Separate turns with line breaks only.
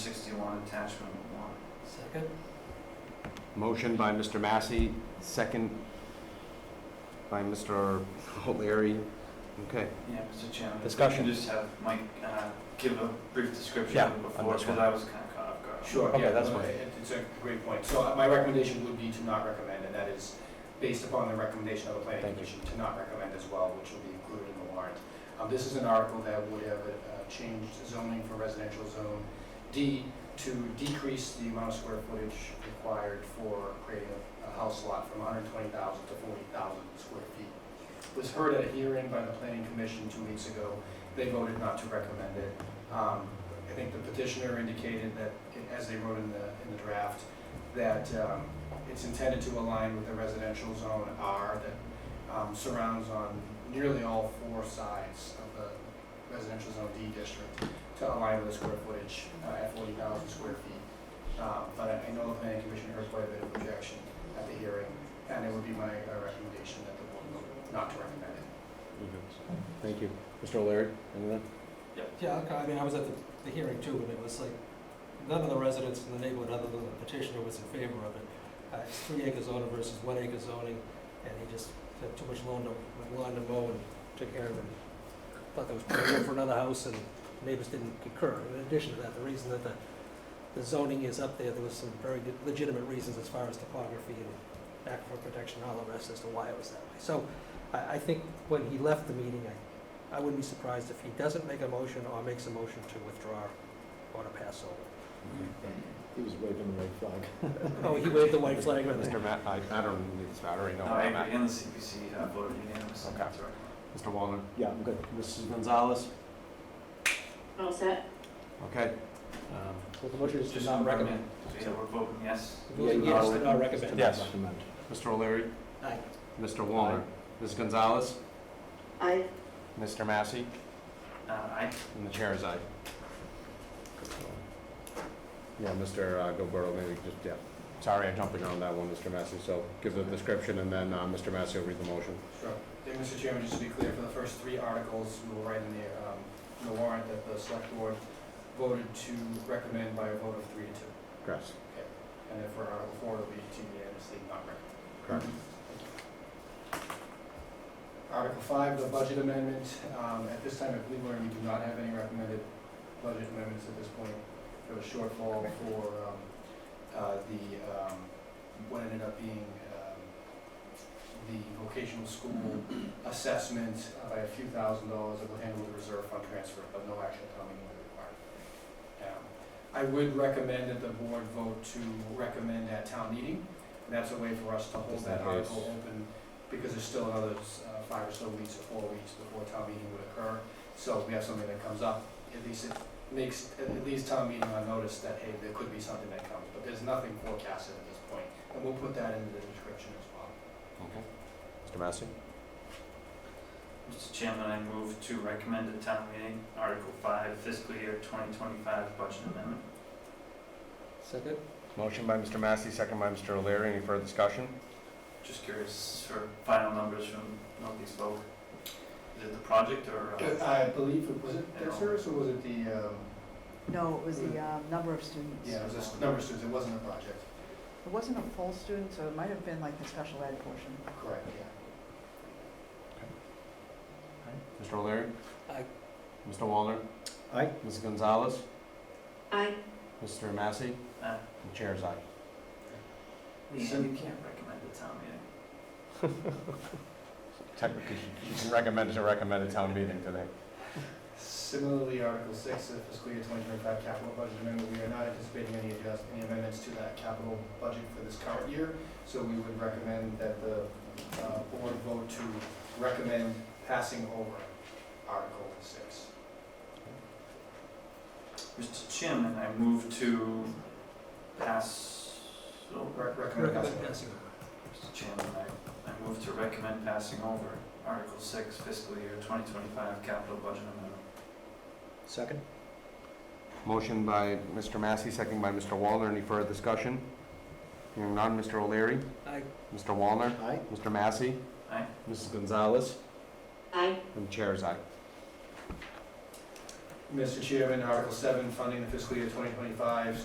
one, attachment one.
Second?
Motion by Mr. Massey, second by Mr. O'Leary. Okay.
Yeah, Mr. Chairman. if we
Discussion.
can Just have Mike uh, give a brief description
Yeah,
of it
on
before,
this
because
one.
I was kind of caught off guard.
Sure.
Okay,
yeah,
that's
no,
fine.
it- It's a great point. So uh, my recommendation would be to not recommend, and that is based upon the recommendation of the planning
Thank you.
commission to not recommend as well, which will be included in the warrant. Um, This is an article that would have uh, changed zoning for residential zone D to decrease the amount of square footage required for creating a- a house lot from 120,000 to 40,000 square feet. Was heard at a hearing by the planning commission two weeks ago. They voted not to recommend it. Um, I think the petitioner indicated that, as they wrote in the, in the draft, that um, it's intended to align with the residential zone R that um, surrounds on nearly all four sides of the residential zone D district to align with the square footage uh, at forty thousand square feet. Um, But I- I know the planning commission heard quite a bit of objection at the hearing, and it would be my uh, recommendation that the board vote not to recommend it.
Thank you. Mr. O'Leary, anything?
Yeah, okay, I mean, I was at the, the hearing too, and it was like, none of the residents in the neighborhood, other than the petitioner, was in favor of it. Uh, it's three acre zoning versus one acre zoning, and he just had too much lawn to, lawn to mow and took care of it. Thought that was pretty good for another house, and neighbors didn't concur. In addition to that, the reason that the, the zoning is up there, there was some very good- legitimate reasons as far as topography and aquifer protection and all the rest as to why it was that way. So I, I think when he left the meeting, I I wouldn't be surprised if he doesn't make a motion or makes a motion to withdraw or to pass over.
He was waving the red flag.
Oh, he waved the white flag with
Mr. Ma, I, I don't need this, I already know.
No,
where
I
I'm
agree,
at.
and the CPC uh, voted unanimously.
Okay.
not to recommend.
Mr. Wallner?
Yeah, I'm good. Mrs. Gonzalez?
Gonzalez?
All set?
Okay.
Um, So the motion is to
Just
not recommend.
recommend. So, Yeah, we're voting yes.
Yeah, yes, to not recommend.
Just to not
Yes.
recommend.
Mr. O'Leary?
Aye.
Mr. Wallner? Ms. Gonzalez?
Aye.
Mr. Massey?
Uh, I,
And the chair is aye. Yeah, Mr. uh, Gilberto, maybe just, yeah. Sorry, I'm jumping on that one, Mr. Massey, so give the description and then uh, Mr. Massey will read the motion.
Sure. Then, Mr. Chairman, just to be clear, for the first three articles, we will write in the, um, in the warrant that the select board voted to recommend by a vote of three to two.
Chris?
And then for Article four, it'll be to unanimously not recommend.
Correct.
Article five, the budget amendment. Um, at this time, I believe we do not have any recommended budget amendments at this point. There was shortfall for, um, uh, the, um, what ended up being, um, the vocational school assessment by a few thousand dollars that will handle the reserve fund transfer, but no action coming when required. Um, I would recommend that the board vote to recommend at town meeting. That's a way for us to hold
Just in
that
case.
article open, because there's still another uh, five or so weeks or four weeks before town meeting would occur. So if we have something that comes up, at least it makes, at least town meeting on notice that, hey, there could be something that comes. But there's nothing forecasted at this point, and we'll put that in the description as well.
Okay. Mr. Massey?
Mr. Chairman, I move to recommend at town meeting Article five fiscal year twenty twenty-five budget amendment.
Second?
Motion by Mr. Massey, second by Mr. O'Leary. Any further discussion?
Just curious for final numbers from Northeast Vogue. Is it the project or? uh,
I believe, it was it debt service or was it the, um,
No, it was the um, number of students.
yeah, it was just number of students, it wasn't a project.
It wasn't a full student, so it might have been like the special ed portion.
Correct, yeah.
Mr. O'Leary?
Aye.
Mr. Wallner?
Aye.
Ms. Gonzalez?
Aye.
Mr. Massey?
Aye.
The chair is aye.
Lisa, you can't recommend at town meeting.
Technically, she can recommend to recommend a town meeting today.
Similarly, Article six, the fiscal year twenty twenty-five capital budget amendment, we are not anticipating any adjust, any amendments to that capital budget for this current year. So we would recommend that the, uh, board vote to recommend passing over Article six.
Mr. Chairman, I move to pass, oh,
Rec- Recommend passing.
Recommend passing over.
Mr. Chairman, I, I move to recommend passing over Article six fiscal year twenty twenty-five capital budget amendment.
Second?
Motion by Mr. Massey, second by Mr. Wallner. Any further discussion? Hearing none. Mr. O'Leary?
Aye.
Mr. Wallner?
Aye.
Mr. Massey?
Aye.
Mrs. Gonzalez?
Aye.
And the chair is aye.
Mr. Chairman, Article seven, funding the fiscal year twenty twenty-five